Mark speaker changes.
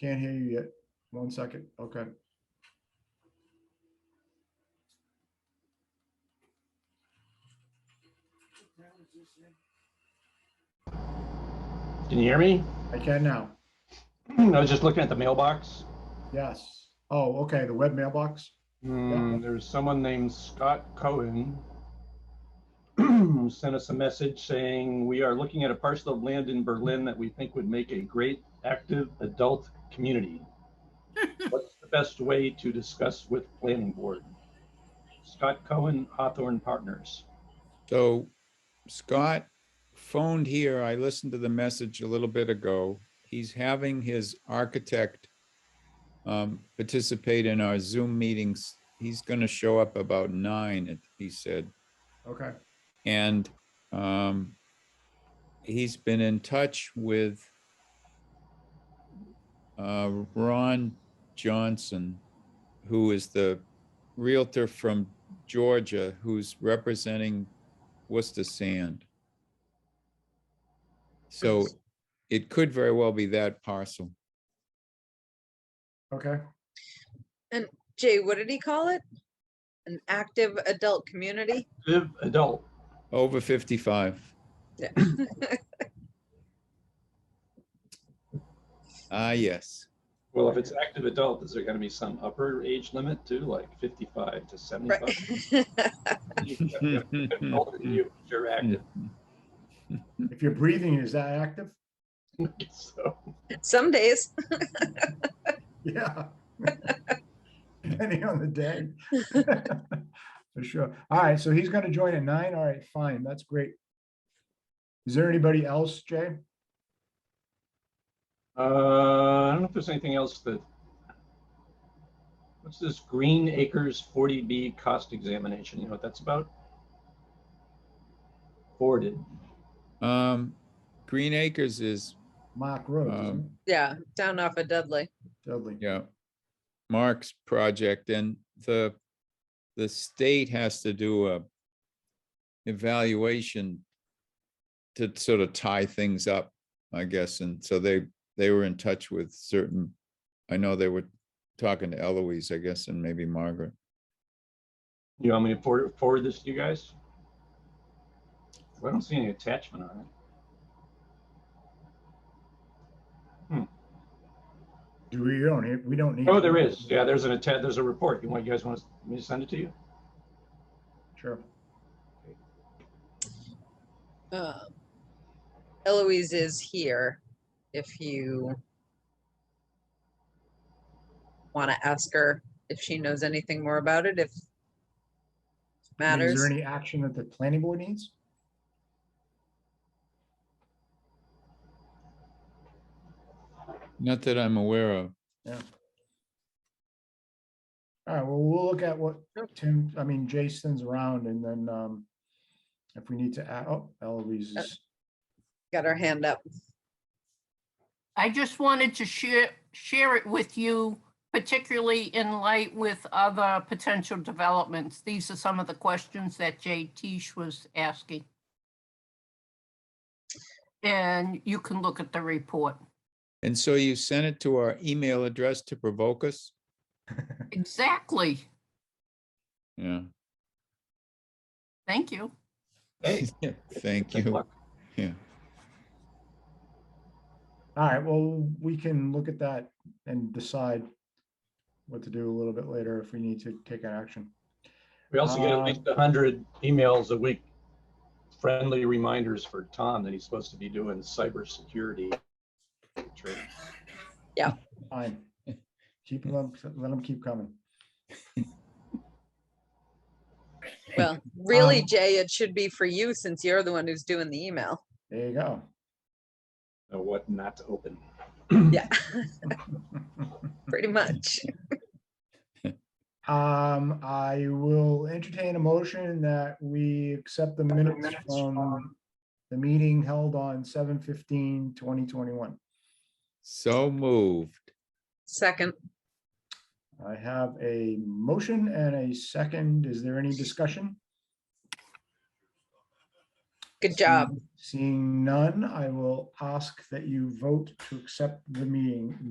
Speaker 1: Can't hear you yet. One second. Okay.
Speaker 2: Can you hear me?
Speaker 1: I can now.
Speaker 2: Hmm, I was just looking at the mailbox.
Speaker 1: Yes. Oh, okay. The web mailbox.
Speaker 2: Hmm, There's someone named Scott Cohen who sent us a message saying, "We are looking at a parcel of land in Berlin that we think would make a great active adult community. What's the best way to discuss with planning board?" Scott Cohen, Hawthorne Partners.
Speaker 3: So Scott phoned here. I listened to the message a little bit ago. He's having his architect um, participate in our Zoom meetings. He's going to show up about nine, he said.
Speaker 1: Okay.
Speaker 3: And um, he's been in touch with uh, Ron Johnson, who is the Realtor from Georgia, who's representing Worcester Sand. So it could very well be that parcel.
Speaker 1: Okay.
Speaker 4: Jay, what did he call it? An active adult community?
Speaker 2: Active adult.
Speaker 3: Over 55.
Speaker 4: Yeah.
Speaker 3: Ah, yes.
Speaker 2: Well, if it's active adult, is there going to be some upper age limit too, like 55 to 75? Older than you, if You're active.
Speaker 1: If you're breathing, is that active?
Speaker 2: So,
Speaker 4: Some days,
Speaker 1: Yeah. Depending on the day. For sure. All right. So he's going to join at nine. All right, fine. That's great. Is there anybody else, Jay?
Speaker 2: uh, I don't know if there's anything else that. What's this Green Acres 40B cost examination? You know what that's about? Forwarded.
Speaker 3: Um, Green Acres is,
Speaker 1: Mark Rhodes, isn't it?
Speaker 3: Um,
Speaker 4: yeah, down off of Dudley.
Speaker 1: Dudley.
Speaker 3: yeah, Mark's project and the, the state has to do a evaluation to sort of tie things up, I guess. And so they, they were in touch with certain, I know they were talking to Eloise, I guess, and maybe Margaret.
Speaker 2: You want me to forward, forward this to you guys? I don't see any attachment on it.
Speaker 1: Do we don't, need- we don't need.
Speaker 2: Oh, there is. Yeah, there's an attach, there's a report. You want, you guys want me to send it to you?
Speaker 1: Sure.
Speaker 4: Um, Eloise is here if you want to ask her if she knows anything more about it,
Speaker 1: I
Speaker 4: if
Speaker 1: mean, Is
Speaker 4: matters.
Speaker 1: there any action that the planning board needs?
Speaker 3: Not that I'm aware of.
Speaker 1: All right, well, we'll look at what Tim, I mean, Jason's around and then um if we need to add, oh, Eloise
Speaker 4: Uh,
Speaker 1: is,
Speaker 4: Got her hand up.
Speaker 5: I just wanted to share, share it with you, particularly in light with other potential developments. These are some of the questions that Jay Teach was asking. And you can look at the report.
Speaker 3: And so you sent it to our email address to provoke us?
Speaker 5: Exactly.
Speaker 3: Yeah,
Speaker 5: Thank you.
Speaker 2: Hey.
Speaker 3: thank
Speaker 2: good
Speaker 3: you.
Speaker 2: luck.
Speaker 1: all right, well, we can look at that and decide what to do a little bit later if we need to take an action.
Speaker 2: We also get at
Speaker 1: Um,
Speaker 2: least a hundred emails a week, friendly reminders for Tom that he's supposed to be doing cybersecurity. training.
Speaker 1: Fine. Keep them, let them keep coming.
Speaker 4: Well, really,
Speaker 1: Um,
Speaker 4: Jay, it should be for you since you're the one who's doing the email.
Speaker 1: There you go.
Speaker 2: Know what not to open.
Speaker 4: Yeah, pretty much.
Speaker 1: Um, I will entertain a motion that we accept the minutes from the meeting held on 2021.
Speaker 3: So moved.
Speaker 4: Second,
Speaker 1: I have a motion and a second. Is there any discussion?
Speaker 4: good job.
Speaker 1: Seeing none, I will ask that you vote to accept the meeting